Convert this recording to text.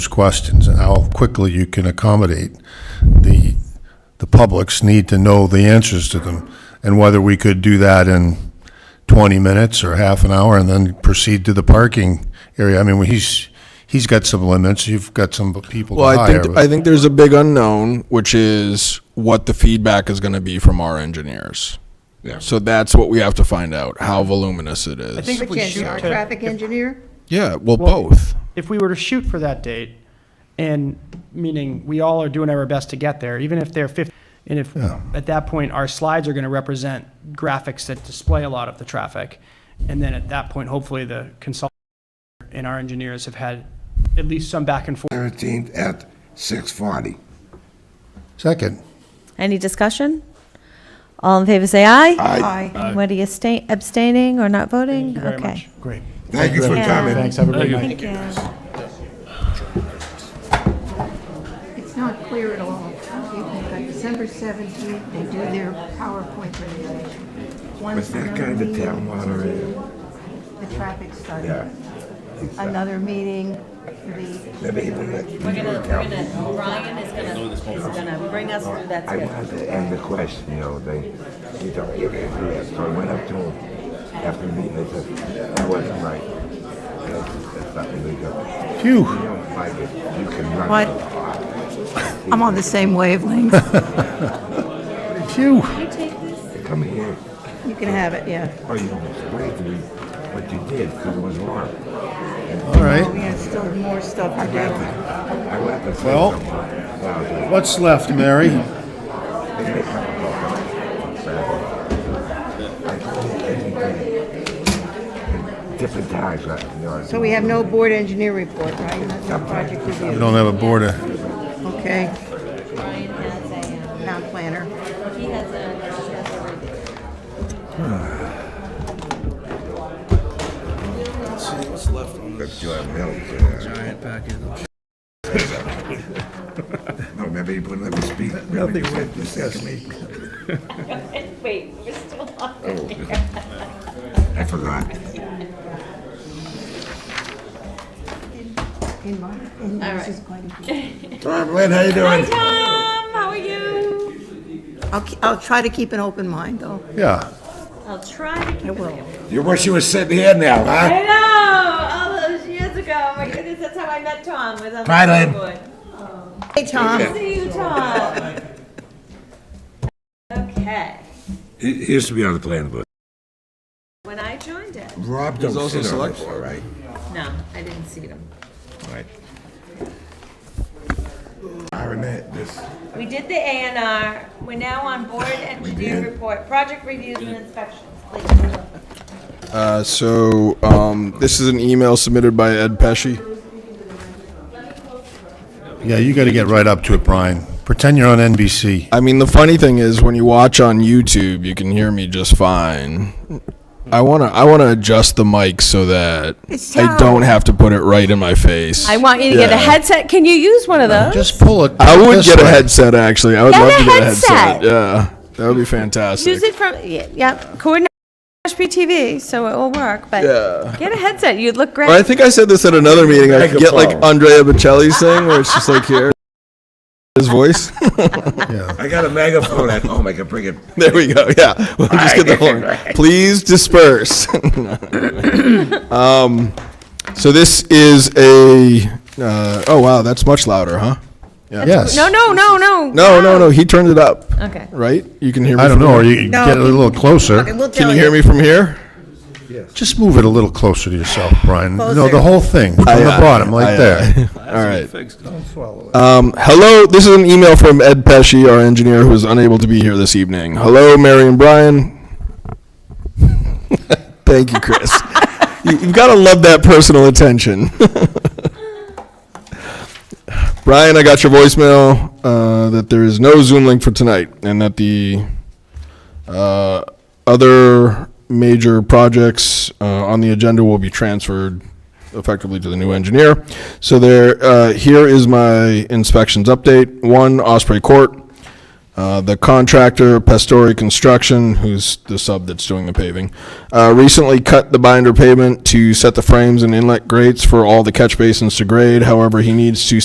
questions and how quickly you can accommodate the, the public's need to know the answers to them, and whether we could do that in 20 minutes or half an hour, and then proceed to the parking area. I mean, well, he's, he's got some limits, you've got some people to Well, I hire. think I but- think there's a big unknown, which is what the feedback is going to be from our engineers. Yeah. So that's what we have to find out how voluminous it is. I think- if But we can't shoot you, our to- traffic engineer? yeah, well, Well- both. if we were to shoot for that date, and meaning we all are doing our best to get there, even if they're 50, and if at that point our slides are going to represent graphics that display a lot of the traffic, and then at that point, hopefully the consultant and our engineers have had at least some back and forth. 13th at 6:40. Second, Any discussion? All in favor, say aye. Aye. Anybody abstain- abstaining or not voting? very Okay. much. Great. Thank you for Yeah. coming. Thanks, have a great night. Thank you. It's not clear at all. You've got December 17th, they do their PowerPoint presentation. Once With that another guy, the meeting, town moderator, The traffic study. yeah. Another meeting, the, Maybe he would let- We're gonna, we're gonna, Ryan is gonna, is gonna bring us through that I schedule. wanted to end the question, you know, they, he told me, you can't do that. So I went up to him after the meeting, I said, that wasn't right. That's that's not illegal. phew. You don't like it, you can run. What? the clock. I'm on the same wavelength. Come here, You can have it, yeah. or you can explain to me what you did, because it was wrong. All right, We have still more stuff to do. I went to say Well- something. Well, what's left, Mary? Different times, right? You know, So we have no board engineer report, right? That's our project We review. don't have a board of, Okay, Ryan has a, town planner. um, he has a, he has a review. Let's do our milk. Giant packet. No, maybe you wouldn't let me speak. Nothing would discuss me. Wait, we're still on. Oh. I forgot. In my, in yours is going to be. Tom, Lynn, how you Hi, doing? Tom, how are you? I'll, ke- I'll try to keep an open mind, though. yeah. I'll try to keep I it. will. You wish you were sitting here now, huh? I know, all those years ago, oh my goodness, that's how I met Tom, was on the Bye, Lynn. board. Hey, Tom. See you, Tom. Okay, He he used to be on the planning board. when I joined it, Rob He's don't also sit on select- it, all right? no, I didn't see them. Right. Arnett, this, We did the A and R, we're now on board engineer report, project reviews and inspections, please. Uh, so um, this is an email submitted by Ed Pesci. Yeah, you gotta get right up to it, Brian. Pretend you're on NBC. I mean, the funny thing is, when you watch on YouTube, you can hear me just fine. I wanna, I wanna adjust the mic so that It's I don't terrible. have to put it right in my face. I want you to get a Yeah. headset. Can you use one of those? Just pull it. I would this get a way. headset. Actually, I would Get love a to get a headset. headset. Yeah, that would be fantastic. Use it from, y- yep, coordinate HPTV, so it will work, but Yeah. get a headset. You'd look great. Or I think I said this at another meeting. I Make could a get like phone. Andrea Bocelli's thing, where it's just like here, his voice. I got a megaphone at home, I can bring it. There we go. Yeah, we'll just get the horn. Please disperse. um, so this is a. Uh, oh wow, that's much louder, huh? Yes. No, no, no, no. No, no, no. He turned it up. Okay. Right? You can hear me. I don't from know, or here? you get a little Okay, closer. we'll Can tell you hear me from here? Just move it a little closer to yourself, Brian. No, the Closer. whole thing, from the Aye, aye, bottom, aye, right aye. there. All right. Um, hello, this is an email from Ed Pesci, our engineer, who is unable to be here this evening. Hello, Mary and Brian. Thank you, Chris. you, you've got to love that personal attention. Brian, I got your voicemail uh, that there is no Zoom link for tonight, and that the uh, other major projects uh, on the agenda will be transferred effectively to the new engineer. So there, uh, here is my inspections update. One, Osprey Court. Uh, The contractor, Pastori Construction, who's the sub that's doing the paving, uh, recently cut the binder pavement to set the frames and inlet grates for all the catch basins to grade. However, he needs to